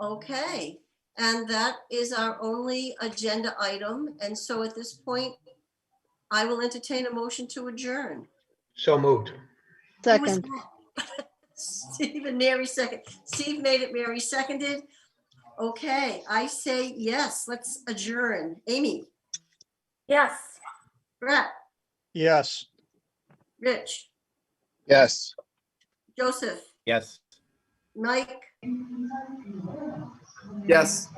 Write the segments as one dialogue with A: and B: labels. A: Okay, and that is our only agenda item. And so at this point, I will entertain a motion to adjourn.
B: So moved.
A: Who was
C: Second,
A: that? Steve and Mary second. Steve made it, Mary seconded. Okay, I say yes, let's adjourn. Amy,
D: Yes.
A: Brett,
B: Yes.
A: Rich,
E: Yes.
A: Joseph,
E: Yes.
A: Mike,
E: Yes.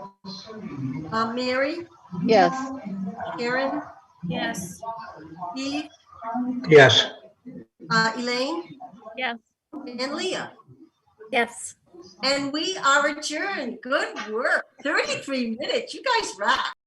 A: uh, Mary,
C: yes.
A: Karen,
D: Yes.
A: Steve,
B: Yes.
A: uh, Elaine?
D: Yes.
A: And Leah?
D: Yes.
A: And we are adjourned. Good work. 33 minutes. You guys rock.